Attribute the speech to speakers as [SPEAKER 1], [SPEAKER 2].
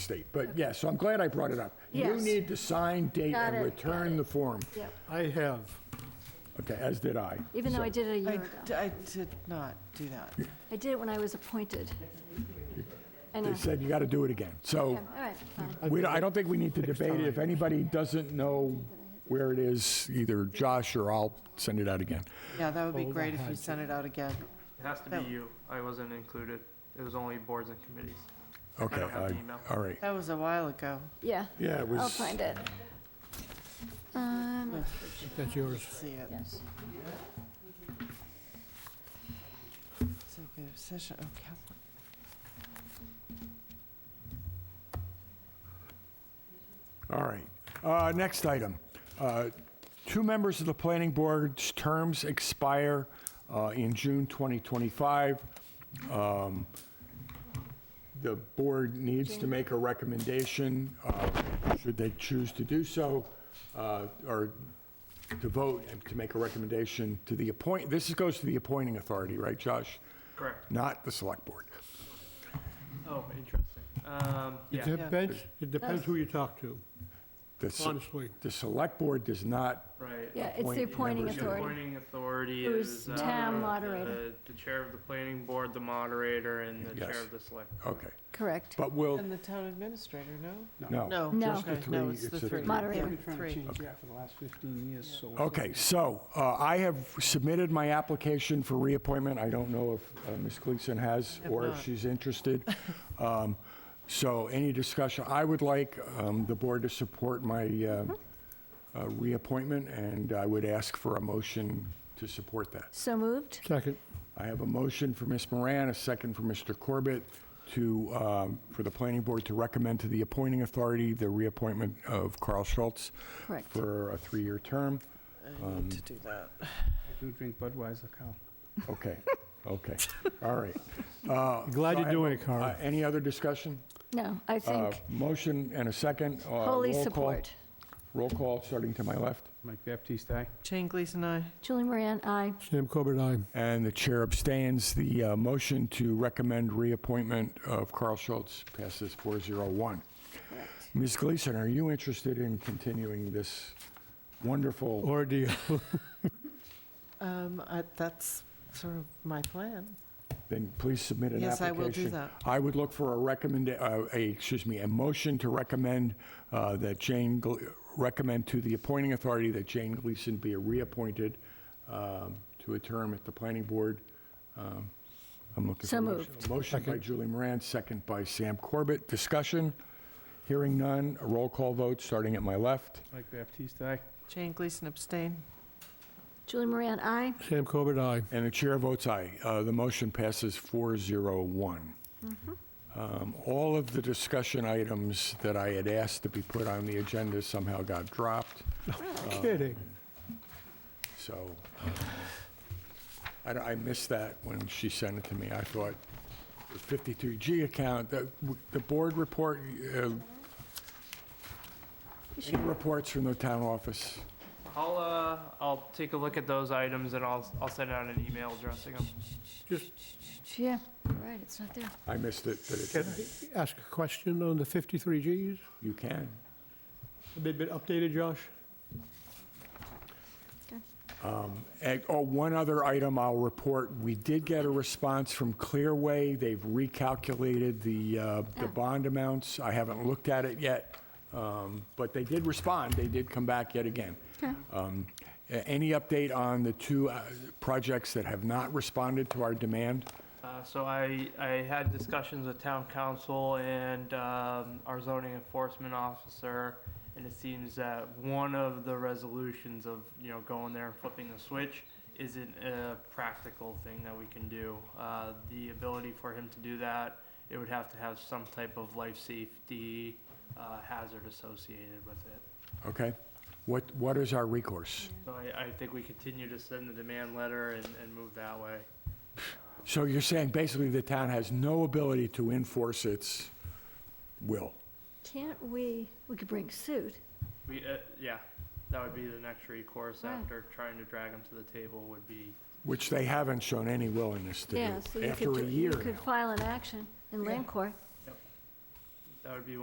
[SPEAKER 1] state. But yes, so I'm glad I brought it up. You
[SPEAKER 2] Yes.
[SPEAKER 1] need to sign, date,
[SPEAKER 2] Got
[SPEAKER 1] and
[SPEAKER 2] it,
[SPEAKER 1] return the form.
[SPEAKER 2] Yep,
[SPEAKER 3] I have.
[SPEAKER 1] Okay, as did I.
[SPEAKER 2] even though I did it a year
[SPEAKER 4] I,
[SPEAKER 2] ago.
[SPEAKER 4] d- I did not do that.
[SPEAKER 2] I did it when I was appointed. I know.
[SPEAKER 1] They said you got to do it again. So
[SPEAKER 2] Yeah, All right, fine.
[SPEAKER 1] we, don't- I don't think we need to debate it. If anybody doesn't know where it is, either Josh or I'll send it out again.
[SPEAKER 4] Yeah, that would be great if you sent it out again.
[SPEAKER 5] It has to
[SPEAKER 2] Oh.
[SPEAKER 4] That-
[SPEAKER 5] be you. I wasn't included. It was only boards and committees.
[SPEAKER 1] Okay,
[SPEAKER 5] don't have the
[SPEAKER 1] I- uh,
[SPEAKER 5] email.
[SPEAKER 1] all right.
[SPEAKER 4] That was a while ago.
[SPEAKER 2] Yeah,
[SPEAKER 1] Yeah, it was.
[SPEAKER 2] I'll find it. Um,
[SPEAKER 3] That's yours.
[SPEAKER 4] See it. Executive session, oh, Catherine.
[SPEAKER 1] All right. Uh, Next item. Uh, Two members of the planning board's terms expire uh, in June 2025. Um, The board needs to make a recommendation, uh, should they choose to do so, uh, or to vote and to make a recommendation to the appoint, this goes to the appointing authority, right, Josh?
[SPEAKER 5] Correct.
[SPEAKER 1] Not the select board.
[SPEAKER 5] Oh, interesting. Um,
[SPEAKER 3] It
[SPEAKER 5] yeah,
[SPEAKER 3] depends, it depends who you talk to,
[SPEAKER 1] The s-
[SPEAKER 3] honestly.
[SPEAKER 1] The select board does not
[SPEAKER 5] right.
[SPEAKER 2] yeah, it's the
[SPEAKER 1] Appoint
[SPEAKER 2] appointing
[SPEAKER 1] members.
[SPEAKER 5] The
[SPEAKER 2] authority.
[SPEAKER 5] appointing authority
[SPEAKER 2] Who
[SPEAKER 5] is.
[SPEAKER 2] is town
[SPEAKER 5] uh,
[SPEAKER 2] moderator.
[SPEAKER 5] The the chair of the planning board, the moderator, and the
[SPEAKER 1] Yes.
[SPEAKER 5] chair of the select.
[SPEAKER 1] Okay,
[SPEAKER 2] Correct.
[SPEAKER 1] but we will,
[SPEAKER 4] And the town administrator, no?
[SPEAKER 1] no.
[SPEAKER 4] No.
[SPEAKER 2] No.
[SPEAKER 1] Oh. Just the
[SPEAKER 4] Okay, No,
[SPEAKER 1] three-
[SPEAKER 4] it's the
[SPEAKER 1] it's the
[SPEAKER 4] three.
[SPEAKER 1] three.
[SPEAKER 2] Moderator.
[SPEAKER 4] Yeah, Three.
[SPEAKER 3] for the last 15 years, so.
[SPEAKER 1] Okay, so uh, I have submitted my application for reappointment. I don't know if uh, Ms. Gleason has or if
[SPEAKER 4] not.
[SPEAKER 1] she's interested. Um, So any discussion, I would like um, the board to support my uh, uh, reappointment, and I would ask for a motion to support that.
[SPEAKER 2] So moved?
[SPEAKER 3] Second.
[SPEAKER 1] I have a motion for Ms. Moran, a second for Mr. Corbett to, um, for the planning board to recommend to the appointing authority the reappointment of Carl Schultz
[SPEAKER 2] Correct.
[SPEAKER 1] for a three-year term.
[SPEAKER 4] I
[SPEAKER 1] Um,
[SPEAKER 4] need to do that.
[SPEAKER 6] do drink Budweiser, Cal.
[SPEAKER 1] Okay, okay, all right.
[SPEAKER 3] Glad
[SPEAKER 1] Uh, So I
[SPEAKER 3] you're
[SPEAKER 1] have
[SPEAKER 3] doing
[SPEAKER 1] a-
[SPEAKER 3] it, Carl.
[SPEAKER 1] uh, Any other discussion?
[SPEAKER 2] No, I
[SPEAKER 1] Uh,
[SPEAKER 2] think
[SPEAKER 1] Motion and a second. uh,
[SPEAKER 2] wholly
[SPEAKER 1] roll call-
[SPEAKER 2] support.
[SPEAKER 1] Roll call, starting to my left.
[SPEAKER 6] Mike Baptiste, aye.
[SPEAKER 4] Jane Gleason, aye.
[SPEAKER 2] Julie Moran, aye.
[SPEAKER 3] Sam Corbett, aye.
[SPEAKER 1] And the chair abstains. The uh, motion to recommend reappointment of Carl Schultz passes 401. Ms. Gleason, are you interested in continuing this wonderful?
[SPEAKER 3] Ordeal.
[SPEAKER 4] Um, I, that's sort of my plan.
[SPEAKER 1] Then please submit an application.
[SPEAKER 4] Yes, I will do that.
[SPEAKER 1] I would look for a recommend, uh, a, excuse me, a motion to recommend uh, that Jane, Gle- recommend to the appointing authority that Jane Gleason be reappointed um, to a term at the planning board. Um, I'm looking for
[SPEAKER 2] So
[SPEAKER 1] a motion. A Motion by Julie Moran, second by Sam Corbett. Discussion? Hearing none. A Roll call vote, starting at my left.
[SPEAKER 6] Mike Baptiste, aye.
[SPEAKER 4] Jane Gleason abstain.
[SPEAKER 2] Julie Moran, aye.
[SPEAKER 3] Sam Corbett, aye.
[SPEAKER 1] And the chair votes aye. Uh, The motion passes 401. Um, All of the discussion items that I had asked to be put on the agenda somehow got dropped,
[SPEAKER 3] Kidding.
[SPEAKER 1] so um, I don't- I missed that when she sent it to me. I thought the 52G account, the the board report, uh, any reports from the town office?
[SPEAKER 5] I'll, uh, I'll take a look at those items and I'll, I'll send out an email addressing them.
[SPEAKER 2] Yeah, right, it's not there.
[SPEAKER 1] I missed it, but
[SPEAKER 3] Can
[SPEAKER 1] it's-
[SPEAKER 3] I ask a question on the 53Gs?
[SPEAKER 1] you can.
[SPEAKER 3] A bit, bit updated, Josh?
[SPEAKER 1] And, oh, one other item I'll report. We did get a response from Clearway. They've recalculated the, uh, the bond amounts. I haven't looked at it yet, um, but they did respond. They did come back yet again. Um, a- Any update on the two uh, projects that have not responded to our demand?
[SPEAKER 5] Uh, so I, I had discussions with town council and, um, our zoning enforcement officer, and it seems that one of the resolutions of, you know, going there and flipping the switch isn't a practical thing that we can do. Uh, the ability for him to do that, it would have to have some type of life safety, uh, hazard associated with it.
[SPEAKER 1] Okay? What, what is our recourse?
[SPEAKER 5] So I, I think we continue to send the demand letter and, and move that way.
[SPEAKER 1] So you're saying basically the town has no ability to enforce its will?
[SPEAKER 2] Can't we, we could bring suit.
[SPEAKER 5] We, uh, yeah, that would be the next recourse
[SPEAKER 2] Right.
[SPEAKER 5] after trying to drag them to the table would be,
[SPEAKER 1] Which they haven't shown any willingness to
[SPEAKER 2] Yeah,
[SPEAKER 1] do
[SPEAKER 2] so you
[SPEAKER 1] after
[SPEAKER 2] could,
[SPEAKER 1] a
[SPEAKER 2] do- you
[SPEAKER 1] year
[SPEAKER 2] could
[SPEAKER 1] now.
[SPEAKER 2] file an action in land court.
[SPEAKER 5] that would be